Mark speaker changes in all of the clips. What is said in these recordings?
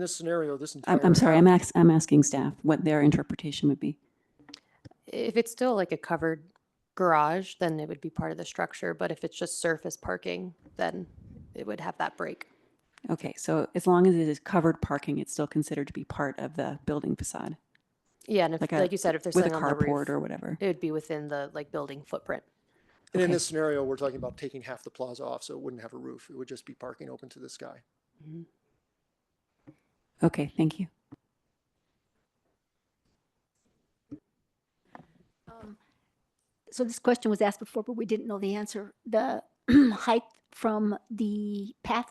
Speaker 1: this scenario, this entire.
Speaker 2: I'm, I'm sorry, I'm ax, I'm asking staff what their interpretation would be.
Speaker 3: If it's still like a covered garage, then it would be part of the structure, but if it's just surface parking, then it would have that break.
Speaker 2: Okay, so as long as it is covered parking, it's still considered to be part of the building facade
Speaker 3: Yeah, and if,
Speaker 2: Like a-
Speaker 3: like you said, if there's
Speaker 2: with a
Speaker 3: something on the
Speaker 2: carport
Speaker 3: roof,
Speaker 2: or whatever.
Speaker 3: it would be within the like building footprint.
Speaker 1: And in
Speaker 2: okay.
Speaker 1: this scenario, we're talking about taking half the plaza off, so it wouldn't have a roof. It would just be parking open to the sky.
Speaker 2: Okay, thank you.
Speaker 4: Um, So this question was asked before, but we didn't know the answer. The height from the path,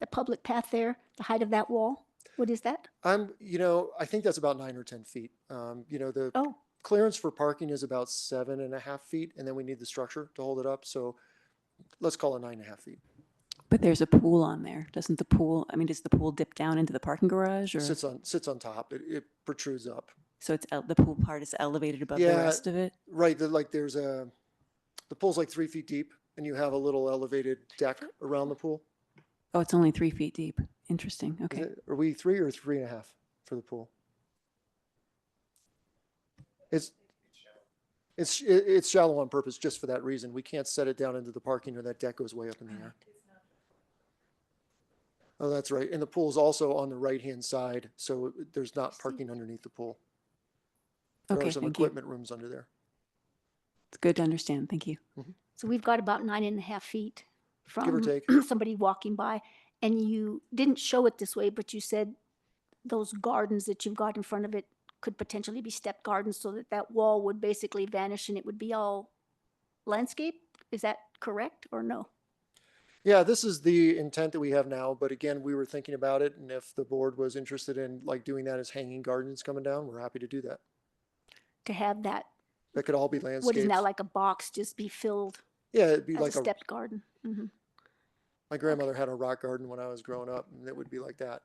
Speaker 4: the public path there, the height of that wall, what is that?
Speaker 1: I'm, you know, I think that's about nine or 10 feet. Um, you know, the
Speaker 4: Oh,
Speaker 1: clearance for parking is about seven and a half feet, and then we need the structure to hold it up, so let's call it nine and a half feet.
Speaker 2: But there's a pool on there. Doesn't the pool, I mean, does the pool dip down into the parking garage or?
Speaker 1: Sits on, sits on top, it, it protrudes up.
Speaker 2: So it's, el- the pool part is elevated above the
Speaker 1: Yeah.
Speaker 2: rest of it?
Speaker 1: Right, the, like, there's a, the pool's like three feet deep, and you have a little elevated deck around the pool.
Speaker 2: Oh, it's only three feet deep. Interesting,
Speaker 1: Is
Speaker 2: okay.
Speaker 1: it- Are we three or three and a half for the pool? It's, it's, it- it's shallow on purpose, just for that reason. We can't set it down into the parking or that deck goes way up in the air. Oh, that's right. And the pool is also on the right-hand side, so there's not parking underneath the pool. There
Speaker 2: Okay,
Speaker 1: are some
Speaker 2: thank you.
Speaker 1: equipment rooms under there.
Speaker 2: It's good to understand, thank you.
Speaker 4: so we've got about nine and a half feet from
Speaker 1: take.
Speaker 4: somebody walking by. And you didn't show it this way, but you said those gardens that you've got in front of it could potentially be step gardens so that that wall would basically vanish and it would be all landscape? Is that correct or no?
Speaker 1: Yeah, this is the intent that we have now, but again, we were thinking about it, and if the board was interested in like doing that as hanging gardens coming down, we're happy to do that.
Speaker 4: To have that
Speaker 1: That could all be landscaped.
Speaker 4: what is now like a box just be filled
Speaker 1: Yeah, it'd be
Speaker 4: as
Speaker 1: like
Speaker 4: a
Speaker 1: a,
Speaker 4: stepped garden. Mhm.
Speaker 1: my grandmother had a rock garden when I was growing up, and it would be like that.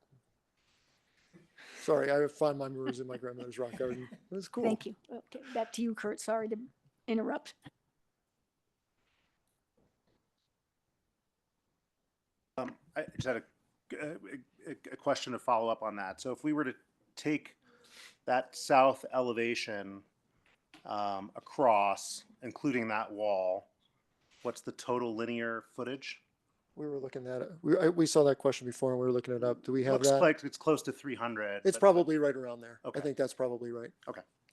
Speaker 1: Sorry, I find my memories in my grandmother's rock garden. It was cool.
Speaker 4: Thank you. Okay, back to you, Kurt. Sorry to interrupt.
Speaker 5: Um, I just had a, a, a- a question to follow up on that. So if we were to take that south elevation um, across, including that wall, what's the total linear footage?
Speaker 1: We were looking that. up- We I, we saw that question before, and we were looking it up. Do we have
Speaker 5: Looks
Speaker 1: that?
Speaker 5: like it's close to 300.
Speaker 1: it's
Speaker 5: but-
Speaker 1: probably right around there. I
Speaker 5: Okay.
Speaker 1: think that's probably right.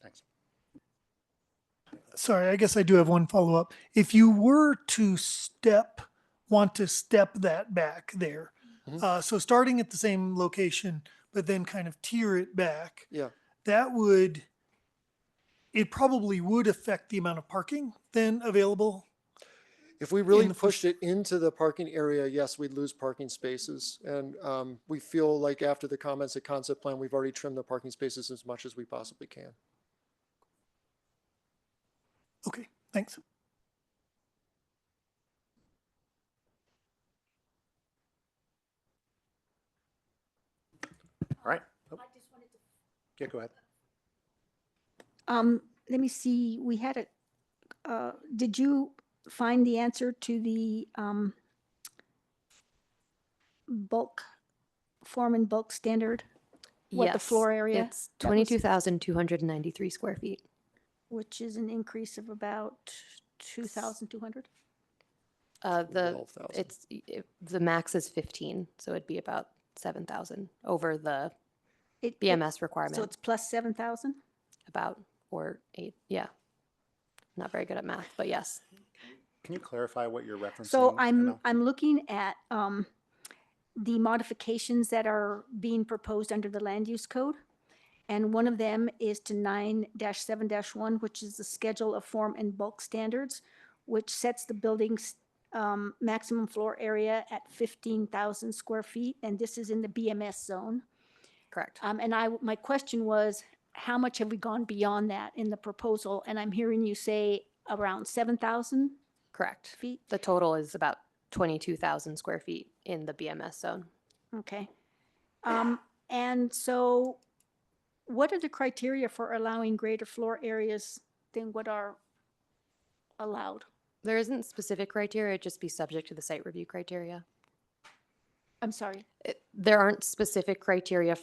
Speaker 5: Thanks.
Speaker 6: sorry, I guess I do have one follow up. If you were to step, want to step that back there,
Speaker 1: Mhm.
Speaker 6: uh, so starting at the same location, but then kind of tear it back.
Speaker 1: Yeah.
Speaker 6: That would, it probably would affect the amount of parking then available.
Speaker 1: If we really
Speaker 6: the first-
Speaker 1: pushed it into the parking area, yes, we'd lose parking spaces. And um, we feel like after the comments at concept plan, we've already trimmed the parking spaces as much as we possibly can.
Speaker 6: Okay, thanks.
Speaker 5: All right. Oh. Yeah, go ahead.
Speaker 4: Um, let me see, we had a, uh, did you find the answer to the, um, bulk, form and bulk standard? What the
Speaker 3: Yes,
Speaker 4: floor area?
Speaker 3: It's
Speaker 4: That was-
Speaker 3: twenty-two thousand two hundred and ninety-three square feet.
Speaker 4: Which is an increase of about two thousand two hundred?
Speaker 3: Uh, the,
Speaker 1: 12,000.
Speaker 3: it's, y- it- the max is fifteen, so it'd be about seven thousand over the BMS
Speaker 4: So
Speaker 3: requirement
Speaker 4: it's plus seven thousand?
Speaker 3: about, or eight, yeah. Not very good at math, but yes.
Speaker 5: Can you clarify what you're referencing?
Speaker 4: So
Speaker 5: I
Speaker 4: I'm,
Speaker 5: know.
Speaker 4: I'm looking at um, the modifications that are being proposed under the land use code. And one of them is to nine seven one, which is the schedule of form and bulk standards, which sets the building's um, maximum floor area at fifteen thousand square feet, and this is in the BMS zone.
Speaker 3: Correct.
Speaker 4: Um, and I, w- my question was, how much have we gone beyond that in the proposal? And I'm hearing you say around seven thousand
Speaker 3: Correct.
Speaker 4: feet.
Speaker 3: The total is about twenty-two thousand square feet in the BMS zone.
Speaker 4: Okay. Um, and so what are the criteria for allowing greater floor areas than what are allowed?
Speaker 3: There isn't specific criteria, it'd just be subject to the site review criteria.
Speaker 4: I'm sorry.
Speaker 3: It- There aren't specific criteria